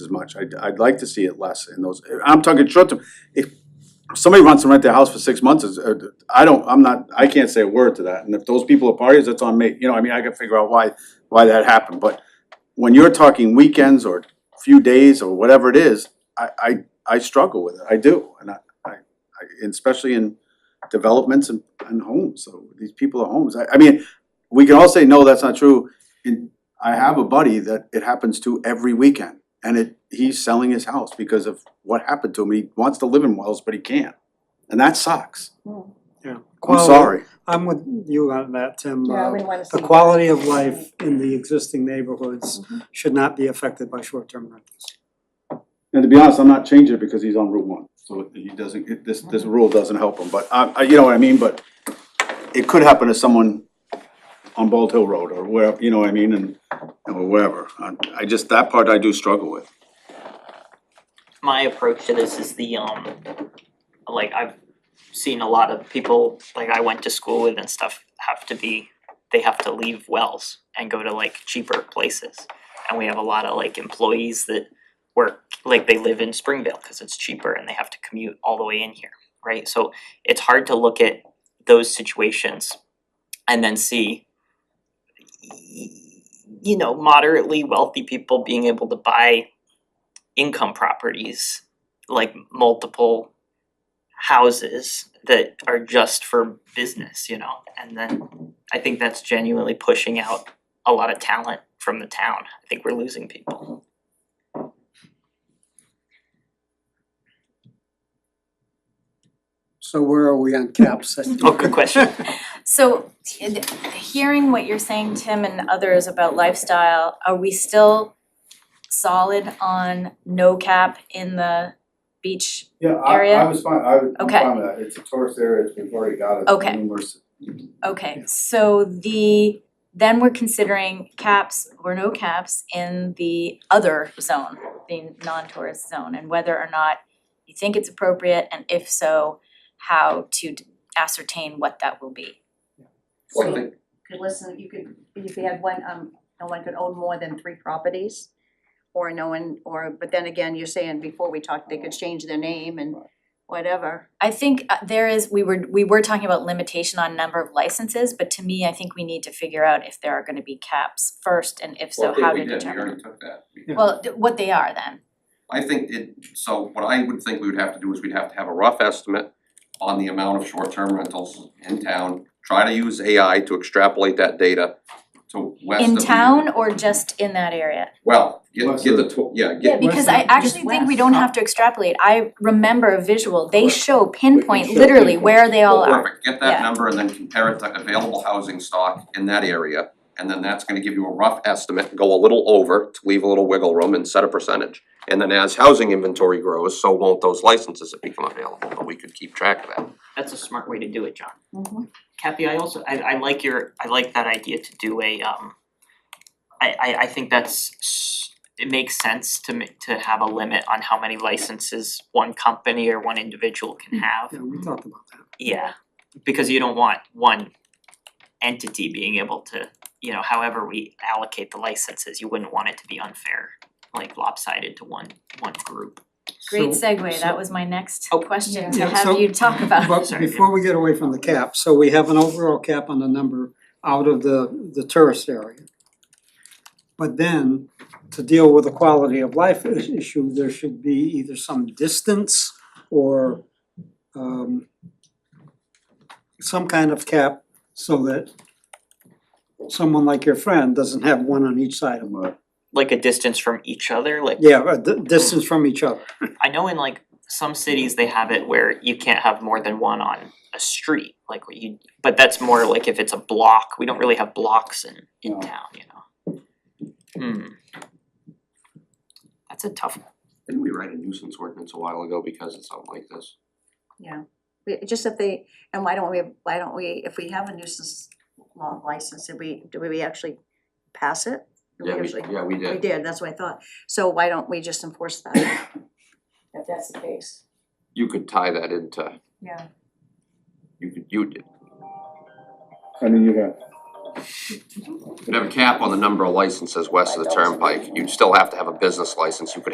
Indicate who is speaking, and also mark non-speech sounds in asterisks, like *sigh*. Speaker 1: much, I'd I'd like to see it less in those, I'm talking short term. If somebody wants to rent their house for six months, is, uh, I don't, I'm not, I can't say a word to that, and if those people are parties, that's on me, you know, I mean, I can figure out why why that happened, but when you're talking weekends or few days or whatever it is, I I I struggle with it, I do, and I I I, and especially in developments and and homes, so these people are homes, I I mean, we can all say, no, that's not true, and I have a buddy that it happens to every weekend. And it, he's selling his house because of what happened to him. He wants to live in Wells, but he can't. And that sucks.
Speaker 2: Yeah.
Speaker 1: I'm
Speaker 2: Quality-
Speaker 1: sorry.
Speaker 2: I'm with you on that, Tim.
Speaker 3: Yeah, I
Speaker 2: Uh,
Speaker 3: wouldn't wanna see.
Speaker 2: The quality of life in the existing neighborhoods
Speaker 3: Mm-hmm.
Speaker 2: should not be affected by short-term rentals.
Speaker 1: And to be honest, I'm not changing it because he's on Route One. So he doesn't, it- this, this rule doesn't help him, but I, I, you know what I mean, but it could happen to someone on Bald Hill Road or where, you know what I mean, and, or wherever. I, I just, that part I do struggle with.
Speaker 4: my approach to this is the um like I've seen a lot of people like I went to school with and stuff have to be they have to leave Wells and go to like cheaper places. And we have a lot of like employees that work like they live in Springvale because it's cheaper and they have to commute all the way in here, right? So it's hard to look at those situations and then see y- you know moderately wealthy people being able to buy income properties, like multiple houses that are just for business, you know? And then I think that's genuinely pushing out a lot of talent from the town. I think we're losing people.
Speaker 2: So where are we on caps?
Speaker 4: Oh, good *laughs* question.
Speaker 5: So i- hearing what you're saying, Tim and others about lifestyle, are we still solid on no cap in the beach?
Speaker 1: Yeah,
Speaker 5: I- Area? I
Speaker 1: was fine, I was
Speaker 5: I'm Okay. fine
Speaker 1: with that. It's a tourist area, we've already got it.
Speaker 5: Okay. Okay, so the, then we're considering caps or no caps in the other zone, the non-tourist zone, and whether or not you think it's appropriate, and if so, how to d- ascertain what that will be.
Speaker 3: So you could listen, you could, if you had one, um, no one could own more than three properties. Or no one, or, but then again, you're saying before we talked, they could change their name and whatever.
Speaker 5: I think uh, there is, we were, we were talking about limitation on number of licenses, but to me, I think we need to figure out if there are gonna be caps first, and if so, how to
Speaker 6: Well, I think we did, we
Speaker 5: determine.
Speaker 6: already took that.
Speaker 2: Yeah.
Speaker 5: d- what they are then,
Speaker 6: I think it, so what I would think we would have to do is we'd have to have a rough estimate on the amount of short-term rentals in town, try to use AI to extrapolate that data to west of
Speaker 5: in
Speaker 6: the-
Speaker 5: town or just in that area?
Speaker 6: Well, get
Speaker 1: West
Speaker 6: get
Speaker 1: of-
Speaker 6: the, tw- yeah,
Speaker 5: Yeah,
Speaker 6: get,
Speaker 5: because
Speaker 2: west
Speaker 5: I
Speaker 2: of-
Speaker 5: actually think we don't have to extrapolate, I remember a visual, they
Speaker 6: Right.
Speaker 5: show pinpoint
Speaker 1: show
Speaker 5: literally
Speaker 1: pinpoint.
Speaker 5: where they all
Speaker 6: well,
Speaker 5: are.
Speaker 6: perfect, get
Speaker 5: Yeah.
Speaker 6: that number and then compare it to available housing stock in that area. And then that's gonna give you a rough estimate, go a little over to leave a little wiggle room and set a percentage. And then as housing inventory grows, so won't those licenses that become available, but we could keep track of that.
Speaker 4: That's a smart way to do it, John. Kathy, I also, I I like your, I like that idea to do a um I I I think that's s- it makes sense to ma- to have a limit on how many licenses one company or one individual can have.
Speaker 2: Yeah, we talked about that.
Speaker 4: Yeah, because you don't want one entity being able to, you know, however we allocate the licenses, you wouldn't want it to be unfair, like lopsided to one one group.
Speaker 5: Great
Speaker 2: So-
Speaker 5: segue,
Speaker 2: so-
Speaker 5: that was my next
Speaker 4: Oh.
Speaker 5: question
Speaker 2: Yeah.
Speaker 5: to
Speaker 2: Yeah, so-
Speaker 5: have you talk *laughs* about.
Speaker 2: But
Speaker 4: Sorry.
Speaker 2: before we get away from the cap, so we have an overall cap on the number out of the, the tourist area. But then, to deal with the quality of life is- issue, there should be either some distance or um some kind of cap so that someone like your friend doesn't have one on each side of them.
Speaker 4: Like a distance from each other, like
Speaker 2: Yeah, a di- distance from each other.
Speaker 4: I know in like some cities they have it where you can't have more than one on a street, like what you, but that's more like if it's a block, we don't really have blocks in in
Speaker 1: No.
Speaker 4: town, you know? Hmm. That's a tough one.
Speaker 6: Didn't we write a nuisance ordinance a while ago because of something like this?
Speaker 3: We, just if they, and why don't we, why don't we, if we have a nuisance law license, did we, do we actually pass it? Do
Speaker 6: Yeah, we,
Speaker 3: usually-
Speaker 6: yeah, we
Speaker 3: We
Speaker 6: did.
Speaker 3: did, that's what I thought. So why don't we just enforce that? If that's the case.
Speaker 6: You could tie that into,
Speaker 3: Yeah.
Speaker 6: you could, you
Speaker 1: I mean, you have.
Speaker 6: could have a cap on the number of licenses west of the turnpike. You'd still have to have a business license. You could